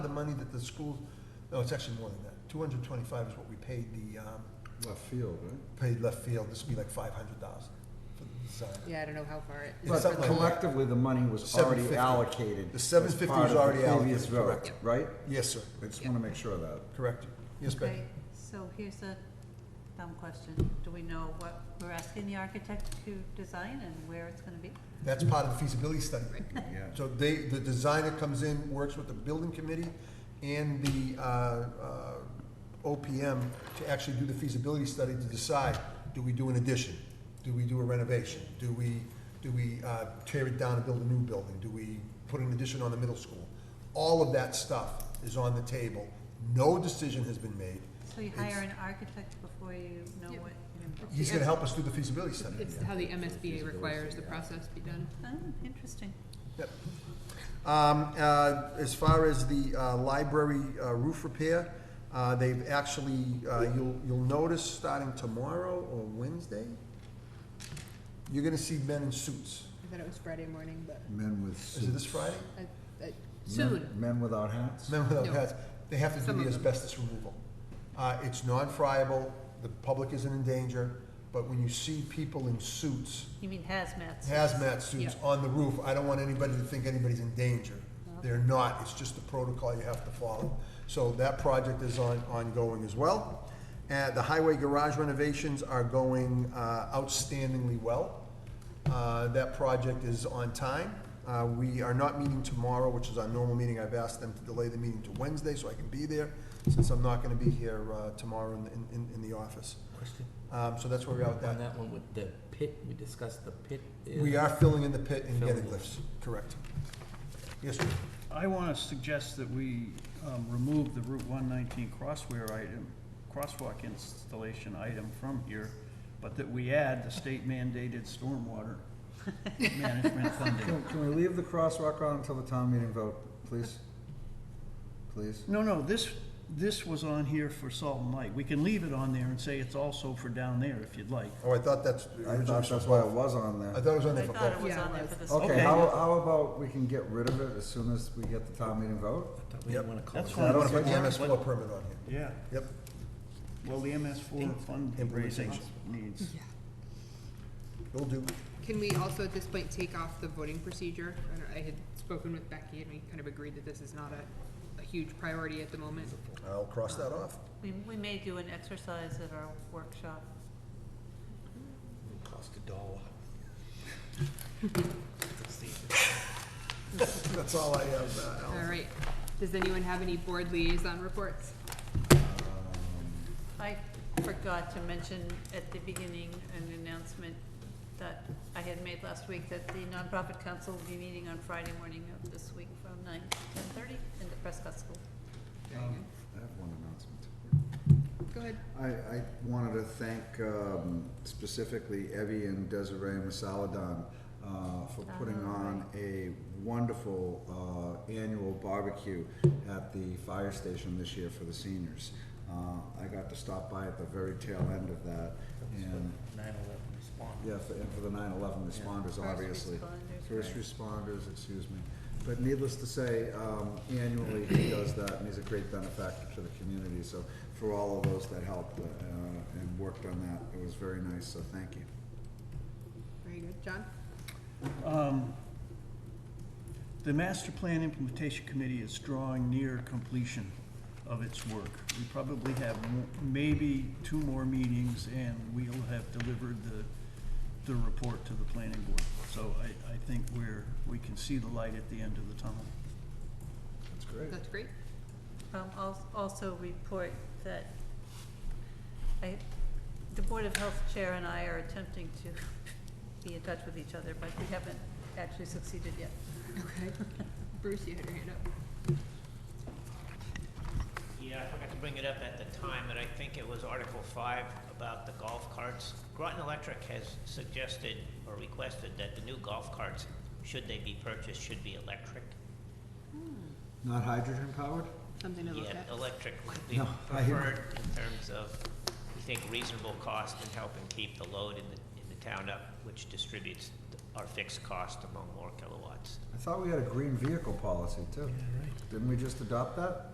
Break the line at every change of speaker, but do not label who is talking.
of money that the school, no, it's actually more than that. Two hundred twenty-five is what we paid the, um,
Left field, right?
paid left field. This would be like five hundred thousand for the design.
Yeah, I don't know how far it.
It's
But
something like that.
collectively, the money was already
750.
allocated.
The 750
as part
was
of the
already
previous
allocated,
vote,
correct.
Right?
Yes, sir.
I just want to make sure of that.
Correct. Yes, Becky.
Okay, so here's a dumb question. Do we know what we're asking the architect to design and where it's gonna be?
That's part of the feasibility study.
Yeah.
So they, the designer comes in, works with the building committee and the, uh, uh, OPM to actually do the feasibility study to decide, do we do an addition? Do we do a renovation? Do we, do we, uh, tear it down and build a new building? Do we put an addition on the middle school? All of that stuff is on the table. No decision has been made.
So you hire an architect before you know
Yep.
what you're
It's-
involved
He's gonna help us do the feasibility study.
It's how the MSBA requires the process be done.
Oh, interesting.
Yep. Um, uh, As far as the uh, library uh, roof repair, uh, they've actually, uh, you'll, you'll notice starting tomorrow or Wednesday, you're gonna see men in suits.
I thought it was Friday morning, but
Men with
Is it this
suits.
Friday?
I, I,
Men-
soon.
Men without hats?
Men without
No.
hats. They have to
Some
do
of
the
them.
asbestos removal. Uh, It's non-friable, the public isn't in danger, but when you see people in suits,
You mean hazmat?
hazmat suits
Yeah.
on the roof, I don't want anybody to think anybody's in danger. They're not, it's just the protocol you have to follow. So that project is on, ongoing as well. And the highway garage renovations are going uh, outstandingly well. Uh, That project is on time. Uh, We are not meeting tomorrow, which is our normal meeting. I've asked them to delay the meeting to Wednesday so I can be there, since I'm not gonna be here uh, tomorrow in, in, in the office.
Question
Um, So that's where we are with that.
on that one with the pit, we discussed the pit. is-
We are filling in the pit and
Filling
getting
it.
lifts, correct. Yes, sir.
I want to suggest that we um, remove the Route 119 crosswear item, crosswalk installation item from here, but that we add the state mandated stormwater management funding.
Can can we leave the crosswalk on until the town meeting vote, please? Please?
No, no, this, this was on here for Salt and Light. We can leave it on there and say it's also for down there if you'd like.
Oh, I thought that's.
I thought that's why it was on
I
there.
thought it was on
I
there for
thought it
both.
was
Yeah,
on
it
there
was.
for the.
Okay,
Okay.
how, how about we can get rid of it as soon as we get the town meeting vote?
I thought we didn't wanna call
That's
it
fine.
I
that
want to
okay?
put the MS four
What-
permit on here.
Yeah,
Yep,
well, the MS4 fundraising
Implementation.
needs.
Yeah.
will do.
Can we also at this point take off the voting procedure? I don't- I had spoken with Becky and we kind of agreed that this is not a, a huge priority at the moment.
I'll cross that off.
We, we may do an exercise at our workshop.
It Cost a dollar.
That's all I have, uh, Alan.
All right. Does anyone have any board liaison reports?
I forgot to mention at the beginning an announcement that I had made last week that the nonprofit council will be meeting on Friday morning of this week from nine to ten thirty in the Prescott School.
Very
Um, I have one announcement.
good. Go ahead.
I, I wanted to thank um, specifically Evie and Desiree Masaladon uh, for putting on a wonderful uh, annual barbecue at the fire station this year for the seniors. Uh, I got to stop by at the very tail end of that, and
Nine eleven response.
yeah, for, and for the 9/11 responders, obviously.
responders,
First responders, excuse me. But needless to say, um, annually he does that, and he's a great benefactor to the community. So for all of those that helped uh, and worked on that, it was very nice, so thank you.
Very good. John?
Um, The Master Plan Implementation Committee is drawing near completion of its work. We probably have mo- maybe two more meetings, and we'll have delivered the, the report to the planning board. So I, I think we're, we can see the light at the end of the tunnel.
That's great.
That's great.
Um, al- also report that I, the Board of Health Chair and I are attempting to be in touch with each other, but we haven't actually succeeded yet.
Okay. Bruce, you had your hand up.
Yeah, I forgot to bring it up at the time, but I think it was Article Five about the golf carts. Groton Electric has suggested or requested that the new golf carts, should they be purchased, should be electric.
Not hydrogen powered?
Something to look
Yeah,
at.
electric would be
No, I hear-
preferred in terms of, we think, reasonable cost and helping keep the load in the, in the town up, which distributes the are fixed cost among more kilowatts.
I thought we had a green vehicle policy too.
Yeah, right.
Didn't we just adopt that?